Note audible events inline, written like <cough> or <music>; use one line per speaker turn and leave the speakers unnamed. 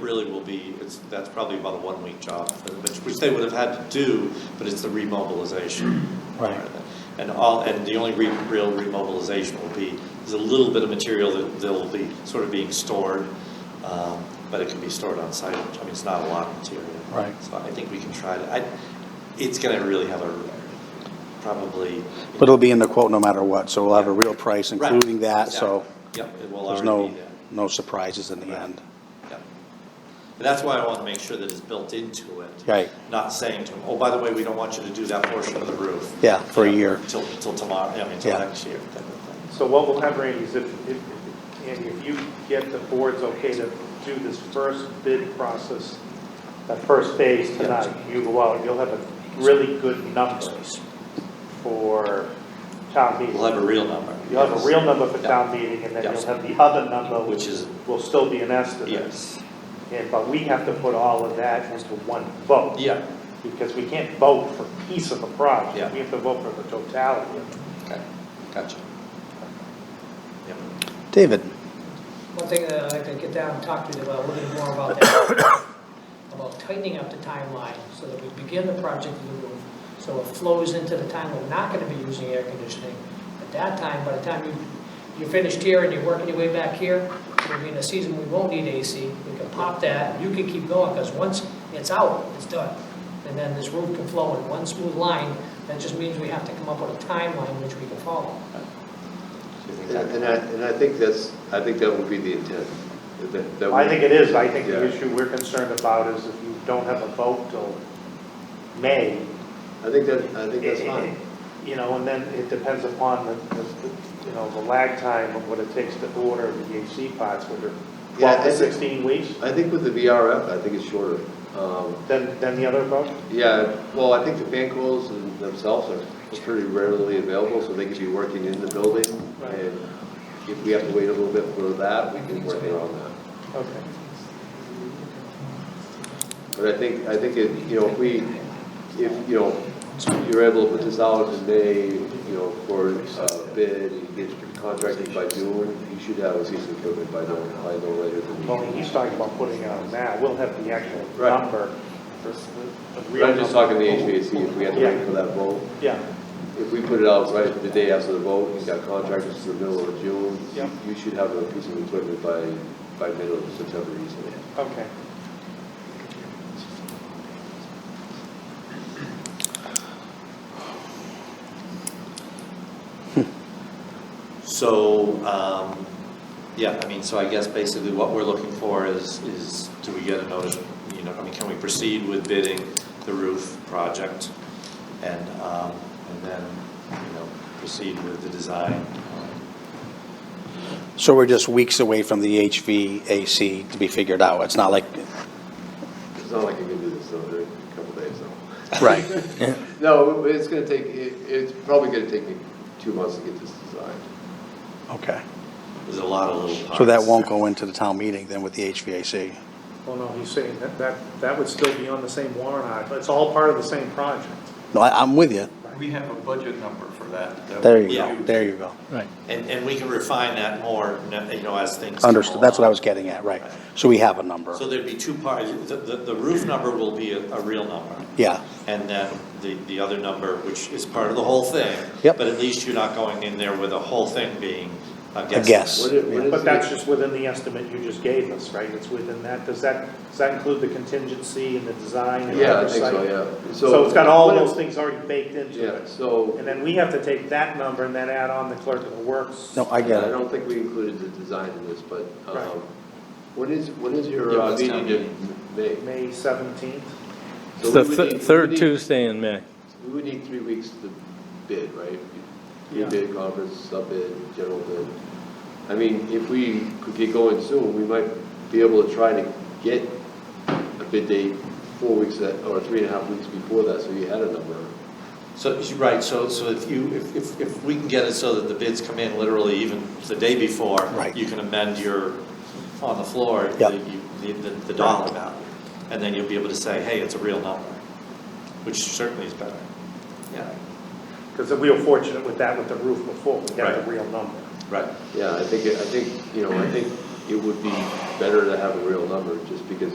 really will be, it's, that's probably about a one-week job, which, which they would have had to do, but it's the remobilization.
<clears throat> Right.
And all, and the only re- real remobilization will be, there's a little bit of material that, that'll be sort of being stored, um, but it can be stored on site, I mean, it's not a lot of material.
Right.
So I think we can try to, I, it's gonna really have a, probably.
But it'll be in the quote no matter what, so we'll have a real price
Right,
including that, so
exactly. Yep, it will
there's
already
no,
be there.
no surprises in the
Right.
end.
Yep. And that's why I want to make sure that it's built into it.
Right.
Not saying to them, oh, by the way, we don't want you to do that portion of the roof.
Yeah, for a
You know,
year.
Till, till tomorrow, I mean, till
Yeah.
next year, type of thing.
So what will happen, Randy, is if, if, Andy, if you get the board's okay to do this first bid process, that first phase tonight, you go out, you'll have a really good number for town meeting.
We'll have a real number.
You'll have a real number for
Yeah.
town meeting, and then
Yeah.
you'll have the other number,
Which
which
is,
will still be an estimate.
yes,
And, but we have to put all of that into one vote.
yeah,
Because we can't vote for a piece of the project.
Yeah.
We have to vote for the totality of it.
okay, gotcha. Yep.
David,
One thing that I'd like to get down and talk to you about, a little bit more about that, about tightening up the timeline so that we begin the project with the roof, so it flows into the time we're not gonna be using air conditioning. At that time, by the time you, you're finished here and you're working your way back here, we'll be in a season we won't need AC, we can pop that, you can keep going, because once it's out, it's done. And then this roof can flow in one smooth line, that just means we have to come up with a timeline which we can follow.
Do you think
And and
that-
I, and I think that's, I think that would be the intent. that- that
I think it is, I think the
Yeah.
issue we're concerned about is if you don't have a vote till May.
I think that, I think that's
it- it-
fine.
You know, and then it depends upon the, the- the, you know, the lag time of what it takes to order the AC pods, whether
Yeah, I
twelve to
think-
sixteen weeks,
I think with the VRF, I think it's shorter. Um,
then, then the other vote.
Yeah, well, I think the fan coils and themselves are pretty readily available, so they could be working in the building.
Right.
And if we have to wait a little bit for that, we can work around that.
Okay.
But I think, I think it, you know, if we, if, you know, you're able to put this out in May, you know, for a bid, and get your contracting by June, you should have a piece of equipment by no, by no later than.
Well, he's talking about putting out now, we'll have the actual
Right.
number. for s- the- the
But
real
I'm just talking the
number.
HVAC, if we had to wait for that vote,
Yeah,
if we put it out right the day after the vote, you got contractors to the middle of June,
Yep.
you should have a piece of equipment by, by middle of September easily.
okay.
So, um, yeah, I mean, so I guess basically what we're looking for is, is do we get a notice, you know, I mean, can we proceed with bidding the roof project? And, um, and then, you know, proceed with the design.
so we're just weeks away from the HVAC to be figured out. It's not like,
It's not like you can do this over a couple days,
<laughs>
though.
right,
No, it's gonna take, it, it's probably gonna take me two months to get this designed.
okay.
There's a lot of little parts.
So that won't go into the town meeting then with the HVAC?
Well, no, he's saying that, that, that would still be on the same warrant article, it's all part of the same project.
No, I, I'm with you.
We have a budget number for that. that
There
we
you
Yeah.
go,
use.
there you go. Right.
And, and we can refine that more, you know, as things. come
Understood, that's what I
along.
was getting at, right. So we have a number,
So there'd be two parts, the, the the roof number will be a, a real number.
yeah,
And then the, the other number, which is part of the whole thing.
Yep.
But at least you're not going in there with the whole thing being a guess.
I guess.
What it- what is
But that's
it-
just within the estimate you just gave us, right? It's within that, does that, does that include the contingency and the design and
Yeah, I think
oversight?
so, yeah.
So it's got all
what it-
those things already baked into
Yeah,
it.
so,
And then we have to take that number and then add on the clerk of the works.
no, I
I
get it.
don't think we included the design in this, but,
Right.
um, when is, when is your
Yeah,
uh,
it's town
meeting in May?
May seventeenth,
It's
So
the
we would
thi-
need- we
third
need-
Tuesday in May.
We would need three weeks to bid, right?
Yeah.
Bid conference, sub-bid, general bid. I mean, if we could get going soon, we might be able to try to get a bid date four weeks, at- or three and a half weeks before that, so you had a number.
So, you're right, so, so if you, if, if, if we can get it so that the bids come in literally even the day before.
Right.
You can amend your, on the floor.
Yep.
the- you- The, the, the dollar amount, and then you'll be able to say, hey, it's a real number, which certainly is better. Yeah,
because we were fortunate with that with the roof before, we got
Right.
the real number.
right.
Yeah, I think, it- I think, you know, I think it would be better to have a real number, just because